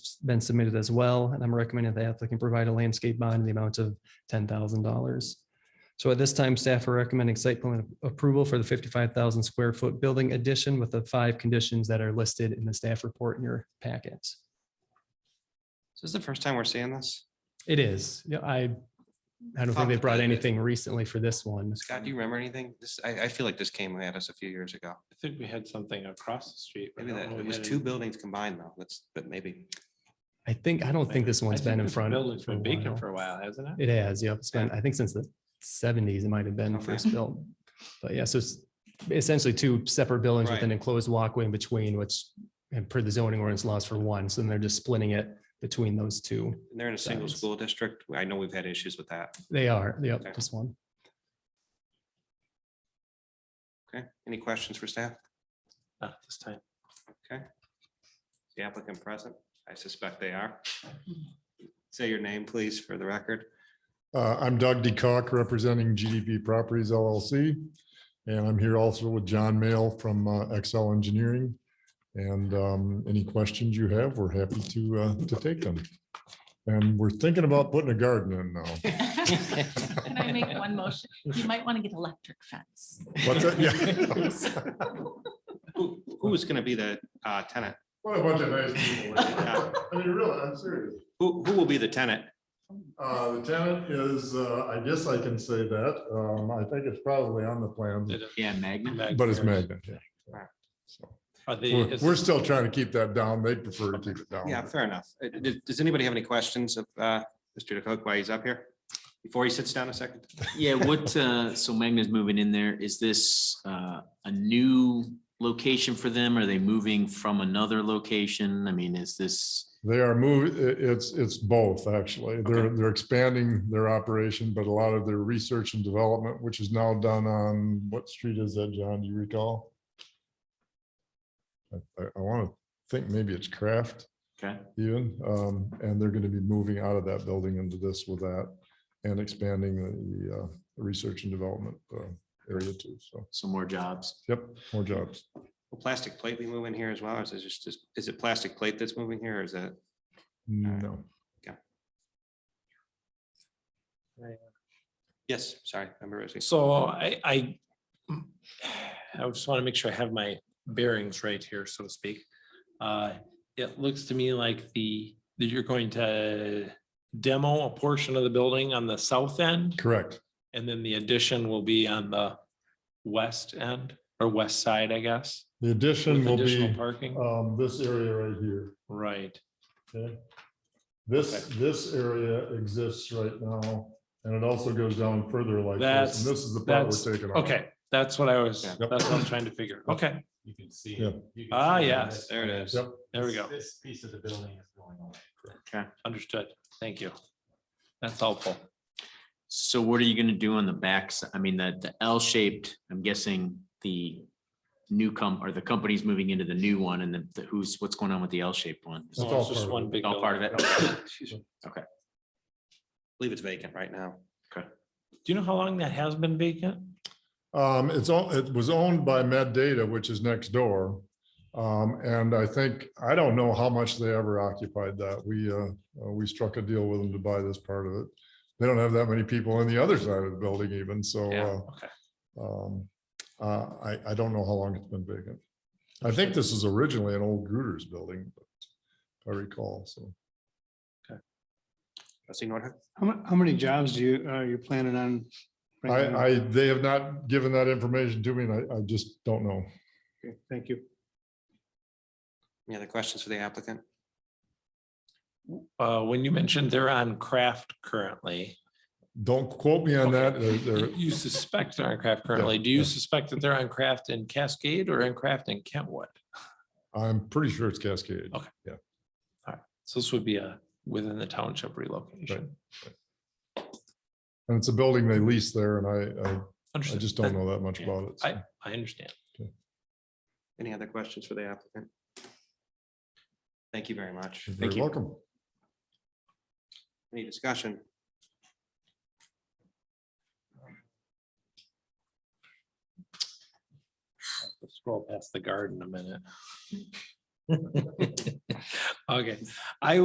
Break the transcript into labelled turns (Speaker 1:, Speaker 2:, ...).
Speaker 1: been submitted as well, and I'm recommending the applicant provide a landscape bond in the amount of ten thousand dollars. So at this time, staff are recommending site plan approval for the fifty-five thousand square foot building addition with the five conditions that are listed in the staff report in your packets.
Speaker 2: So this is the first time we're seeing this.
Speaker 1: It is. Yeah, I, I don't think they brought anything recently for this one.
Speaker 3: Mm.
Speaker 2: Scott, do you remember anything? This, I, I feel like this came at us a few years ago.
Speaker 3: I think we had something across the street. but I
Speaker 2: Maybe
Speaker 3: don't
Speaker 2: that,
Speaker 3: know
Speaker 2: it
Speaker 3: if
Speaker 2: was
Speaker 3: that
Speaker 2: two
Speaker 3: is-
Speaker 2: buildings combined though. That's, but maybe.
Speaker 1: I think, I don't think this one's
Speaker 3: I think
Speaker 1: been in
Speaker 3: this
Speaker 1: front.
Speaker 3: Building's
Speaker 1: for a
Speaker 3: been vacant
Speaker 1: while.
Speaker 3: for a while, hasn't it?
Speaker 1: It has, yep. It's been, I think since the seventies, it might have been
Speaker 2: Okay.
Speaker 1: first built. But yeah, so it's essentially two separate buildings with
Speaker 2: Right.
Speaker 1: an enclosed walkway in between, which and per the zoning ordinance laws for one, so then they're just splitting it between those two.
Speaker 2: and They're in a single
Speaker 1: Sounds-
Speaker 2: school district. I know we've had issues with that.
Speaker 1: They are,
Speaker 2: Okay.
Speaker 1: yep, this one.
Speaker 2: Okay. Any questions for staff?
Speaker 3: Not this time.
Speaker 2: Is The applicant present? I suspect they are. Say your name, please, for the record.
Speaker 4: Uh, I'm Doug DeCock, representing GDP Properties LLC. And I'm here also with John Mail from uh, Excel Engineering. And um, any questions you have, we're happy to, uh, to take them. And we're thinking about putting a garden in now.
Speaker 5: Can I make one motion? You might want to get electric fence.
Speaker 4: What's that? Yeah.
Speaker 2: Who, who's gonna be the uh, tenant?
Speaker 4: What a bunch of nice people.
Speaker 2: Yeah.
Speaker 4: I mean, really, I'm serious.
Speaker 2: Who, who will be the tenant?
Speaker 4: Uh, The tenant is, uh, I guess I can say that. Um, I think it's probably on the plans.
Speaker 6: Yeah, Magna.
Speaker 4: But it's magnet. yeah.
Speaker 2: Right.
Speaker 4: So
Speaker 3: Are they,
Speaker 4: We're
Speaker 3: is
Speaker 4: we're
Speaker 3: this-
Speaker 4: still trying to keep that down. They prefer to keep it down.
Speaker 2: Yeah, fair enough. Uh, Does, does anybody have any questions of uh, Mr. DeCook while he's up here? Before he sits down a second?
Speaker 6: Yeah, what, uh, so Magna's moving in there. Is this, uh, a new location for them? Are they moving from another location? I mean, is this?
Speaker 4: They are moving, it's, it's both, actually. They're,
Speaker 6: Okay.
Speaker 4: they're expanding their operation, but a lot of their research and development, which is now done on, what street is that, John? Do you recall? I, I want to think maybe it's Kraft
Speaker 6: Okay,
Speaker 4: even, um, and they're going to be moving out of that building into this with that and expanding the, the, uh, research and development uh, area too. So,
Speaker 6: some more jobs.
Speaker 4: yep, more jobs.
Speaker 2: Will plastic plate be moving here as well? or Is it just, is- is it plastic plate that's moving here or is that?
Speaker 4: No.
Speaker 2: Yes, sorry, member Rosie.
Speaker 3: so I, I, mm, I just want to make sure I have my bearings right here, so to speak. Uh, It looks to me like the, that you're going to demo a portion of the building on the south end,
Speaker 4: Correct.
Speaker 3: and then the addition will be on the west end, or west side, I guess.
Speaker 4: The addition
Speaker 3: With
Speaker 4: will
Speaker 3: additional
Speaker 4: be,
Speaker 3: parking,
Speaker 4: um, this area right here.
Speaker 3: right.
Speaker 4: Okay. This, this area exists right now, and it also goes down further like this,
Speaker 3: That's-
Speaker 4: and this is the part
Speaker 3: that's-
Speaker 4: we're taking off.
Speaker 3: Okay, that's what I was,
Speaker 2: Yeah.
Speaker 3: that's what I'm trying to figure. Okay,
Speaker 7: You can see.
Speaker 4: Yeah.
Speaker 7: you can
Speaker 3: Ah,
Speaker 7: see on
Speaker 3: yes.
Speaker 7: this
Speaker 2: There it
Speaker 7: plan,
Speaker 2: is.
Speaker 4: Yep.
Speaker 3: there we go.
Speaker 7: This piece of the building is going away.
Speaker 3: Understood. Thank you. That's helpful.
Speaker 6: So what are you gonna do on the backs? I mean, the, the L shaped, I'm guessing the new com, or the company's moving into the new one and then the- who's, what's going on with the L shaped one?
Speaker 4: That's
Speaker 3: No,
Speaker 4: all
Speaker 3: It's just
Speaker 4: part of
Speaker 3: one big.
Speaker 6: All part of
Speaker 3: building.
Speaker 6: it?
Speaker 2: Leave it's vacant right now.
Speaker 3: Do you know how long that has been vacant?
Speaker 4: Um, it's all, it was owned by Med Data, which is next door. Um, and I think, I don't know how much they ever occupied that. We, uh, uh, we struck a deal with them to buy this part of it. They don't have that many people on the other side of the building even, so,
Speaker 3: Yeah,
Speaker 4: uh,
Speaker 3: okay.
Speaker 4: um, uh, I, I don't know how long it's been vacant. I think this is originally an old Gruder's building, but if I recall, so.
Speaker 2: Trustee Norton?
Speaker 8: How mu- how many jobs do you, are you planning on? bringing
Speaker 4: I,
Speaker 8: on?
Speaker 4: I, they have not given that information to me and I, I just don't know.
Speaker 8: Okay, Thank you.
Speaker 2: Any other questions for the applicant?
Speaker 3: Uh, when you mentioned they're on craft currently.
Speaker 4: Don't quote me on that. They're-
Speaker 3: You
Speaker 4: they're-
Speaker 3: you suspect they're on craft currently. Do you
Speaker 4: yeah.
Speaker 3: suspect that they're on craft in Cascade or in craft in Kentwood?
Speaker 4: I'm pretty sure it's Cascade.
Speaker 3: Okay. So this would be a within the township relocation.
Speaker 4: And it's a building they lease there and I, I, I
Speaker 3: Understood.
Speaker 4: just don't
Speaker 3: That-
Speaker 4: know that much about it. so.
Speaker 3: I, I understand.
Speaker 2: Any other questions for the applicant? Thank you very much.
Speaker 4: You're very Welcome.
Speaker 2: Any discussion?
Speaker 3: Scroll past the garden a minute. Okay, I